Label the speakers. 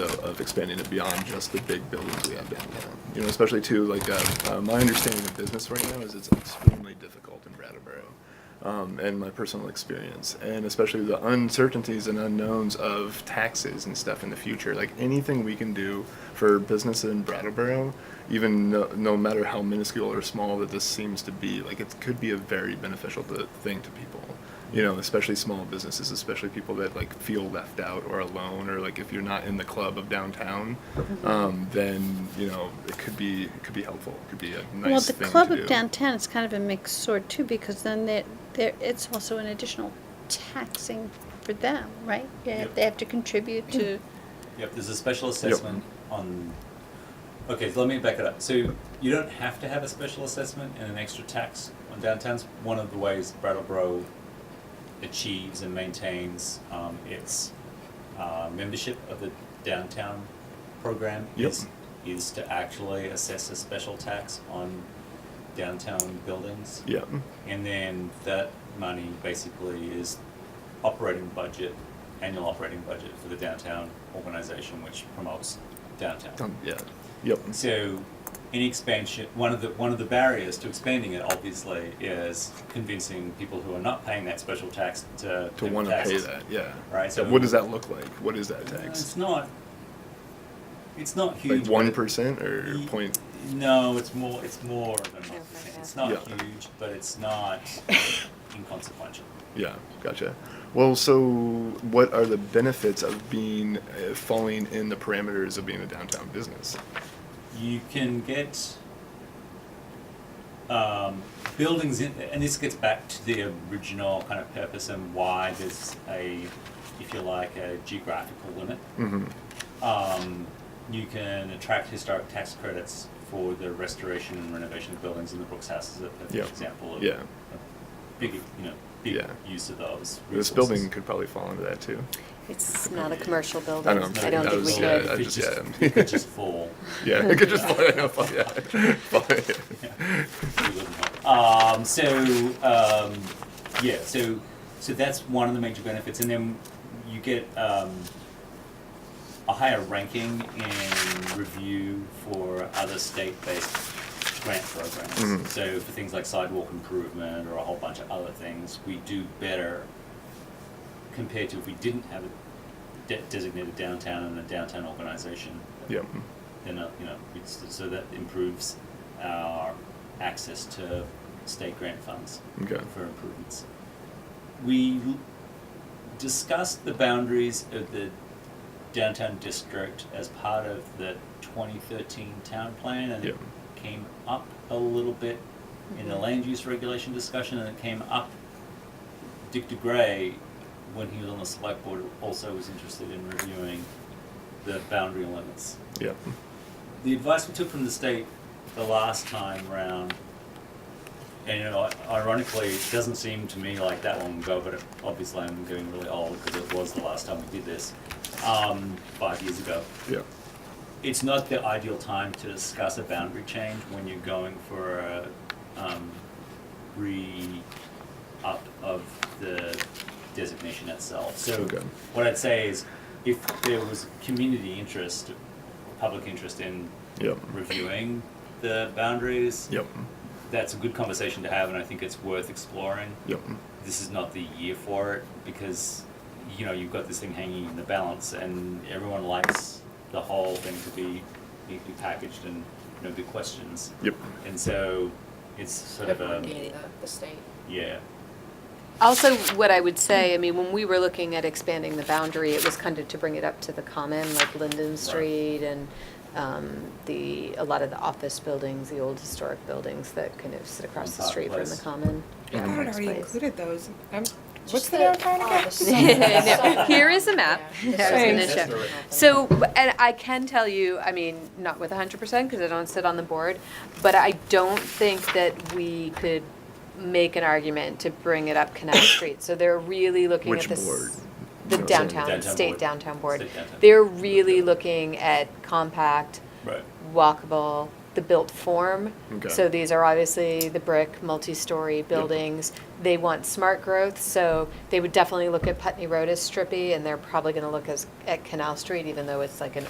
Speaker 1: of, of expanding it beyond just the big buildings we have downtown. You know, especially too, like, uh, uh, my understanding of business right now is it's extremely difficult in Brattleboro. Um, and my personal experience, and especially the uncertainties and unknowns of taxes and stuff in the future. Like anything we can do for business in Brattleboro, even no, no matter how minuscule or small that this seems to be, like it could be a very beneficial to, thing to people you know, especially small businesses, especially people that like feel left out or alone, or like if you're not in the club of downtown,
Speaker 2: Mm-hmm.
Speaker 1: um, then you know it could be it could be helpful. It could be a nice
Speaker 2: Well, the
Speaker 1: thing
Speaker 2: club
Speaker 1: to
Speaker 2: of
Speaker 1: do.
Speaker 2: downtown is kind of a mixed sword too, because then there, there, it's also an additional taxing for them, right? They have,
Speaker 3: Yep.
Speaker 2: they have to contribute to,
Speaker 3: Yep, there's a special assessment on, okay, so let me back it up. So you don't have to have a special assessment and an extra tax on downtown's one of the ways Brattleboro achieves and maintains um, its uh, membership of the downtown program
Speaker 1: Yep.
Speaker 3: is is to actually assess a special tax on downtown buildings.
Speaker 1: Yeah,
Speaker 3: And then that money basically is operating budget, annual operating budget for the downtown organization, which promotes downtown.
Speaker 1: Um, yeah, yep,
Speaker 3: And so, any expansion, one of the, one of the barriers to expanding it obviously is convincing people who are not paying that special tax to.
Speaker 1: to want to pay
Speaker 3: taxes.
Speaker 1: that. Yeah.
Speaker 3: Right,
Speaker 1: So
Speaker 3: so-
Speaker 1: what does that look like? What is that
Speaker 3: Uh, It's
Speaker 1: tax?
Speaker 3: not, it's not huge.
Speaker 1: Like
Speaker 3: but
Speaker 1: one
Speaker 3: it-
Speaker 1: percent or
Speaker 3: Ye-
Speaker 1: point?
Speaker 3: No, it's more, it's more than
Speaker 4: Careful,
Speaker 3: one percent. It's
Speaker 1: yeah.
Speaker 3: not
Speaker 1: Yeah.
Speaker 3: huge, but it's not inconsequential.
Speaker 1: Yeah, gotcha. Well, so what are the benefits of being uh, falling in the parameters of being a downtown business?
Speaker 3: you can get um, buildings in, and this gets back to the original kind of purpose and why there's a, if you like, a geographical limit.
Speaker 1: hmm
Speaker 3: Um, you can attract historic tax credits for the restoration and renovation of buildings, and the Brooks House is a perfect
Speaker 1: Yeah.
Speaker 3: example of
Speaker 1: Yeah.
Speaker 3: a big, you know, big
Speaker 1: Yeah.
Speaker 3: use of those.
Speaker 1: This
Speaker 3: resources.
Speaker 1: building could probably fall into that too.
Speaker 4: It's not a commercial building.
Speaker 1: I know, I'm
Speaker 3: I
Speaker 1: sorry,
Speaker 4: don't
Speaker 1: that
Speaker 4: think we
Speaker 1: was- uh,
Speaker 4: could.
Speaker 1: yeah, I
Speaker 3: It
Speaker 1: just,
Speaker 3: just-
Speaker 1: yeah.
Speaker 3: It could just fall.
Speaker 1: Yeah, it could just fly. No, fly yeah. Fly.
Speaker 3: Um, so um, yeah, so so that's one of the major benefits, and then you get um, a higher ranking in review for other state-based grant programs.
Speaker 1: Mhm.
Speaker 3: So for things like sidewalk improvement or a whole bunch of other things, we do better compared to if we didn't have a de- designated downtown and a downtown organization
Speaker 1: Yeah.
Speaker 3: then uh, you know it's, so that improves our access to state grant funds
Speaker 1: Okay.
Speaker 3: for improvements. We l- discussed the boundaries of the downtown district as part of the 2013 town plan, and it came up a little bit in the land use regulation discussion, and it came up. Dick DeGray, when he was on the select board, also was interested in reviewing the boundary limits
Speaker 1: Yeah.
Speaker 3: the advice we took from the state the last time round, and you know, ironically, it doesn't seem to me like that long ago, but it, obviously I'm getting really old because it was the last time we did this, um, five years ago.
Speaker 1: Yeah.
Speaker 3: It's not the ideal time to discuss a boundary change when you're going for a um, re up of the designation itself. So
Speaker 1: Okay.
Speaker 3: what I'd say is if there was community interest, public interest in
Speaker 1: Yeah.
Speaker 3: reviewing the boundaries.
Speaker 1: Yep.
Speaker 3: That's a good conversation to have, and I think it's worth exploring.
Speaker 1: Yep.
Speaker 3: This is not the year for it because you know you've got this thing hanging in the balance, and everyone likes the whole thing to be neatly packaged and no big questions.
Speaker 1: Yep.
Speaker 3: And so it's sort of a
Speaker 4: The state.
Speaker 3: yeah.
Speaker 4: Also, what I would say, I mean, when we were looking at expanding the boundary, it was kind of to bring it up to the common, like Linden Street and um, the, a lot of the office buildings, the old historic buildings that kind of sit across the
Speaker 3: Park
Speaker 4: street from the
Speaker 3: Place.
Speaker 4: common.
Speaker 5: I thought it
Speaker 4: Parks
Speaker 5: already
Speaker 4: Place.
Speaker 5: included those. I'm, what's
Speaker 6: Just
Speaker 5: the downtown
Speaker 6: all
Speaker 5: again?
Speaker 6: the
Speaker 4: No,
Speaker 6: stuff.
Speaker 4: Here is a map.
Speaker 6: Yeah.
Speaker 4: that I was
Speaker 5: Thanks.
Speaker 4: gonna show. So, and I can tell you, I mean, not with hundred percent, because I don't sit on the board, but I don't think that we could make an argument to bring it up Canal Street. So they're really looking at
Speaker 1: Which
Speaker 4: this.
Speaker 1: board?
Speaker 4: The
Speaker 1: You know,
Speaker 4: downtown,
Speaker 3: Downtown
Speaker 4: state
Speaker 3: board.
Speaker 4: downtown board.
Speaker 3: State downtown.
Speaker 4: They're really looking at compact,
Speaker 3: Right.
Speaker 4: walkable, the built form.
Speaker 1: Okay.
Speaker 4: So these are obviously the brick, multi-story buildings. They want smart growth, so they would definitely look at Putney Road as strippy, and they're probably gonna look as, at Canal Street, even though it's like an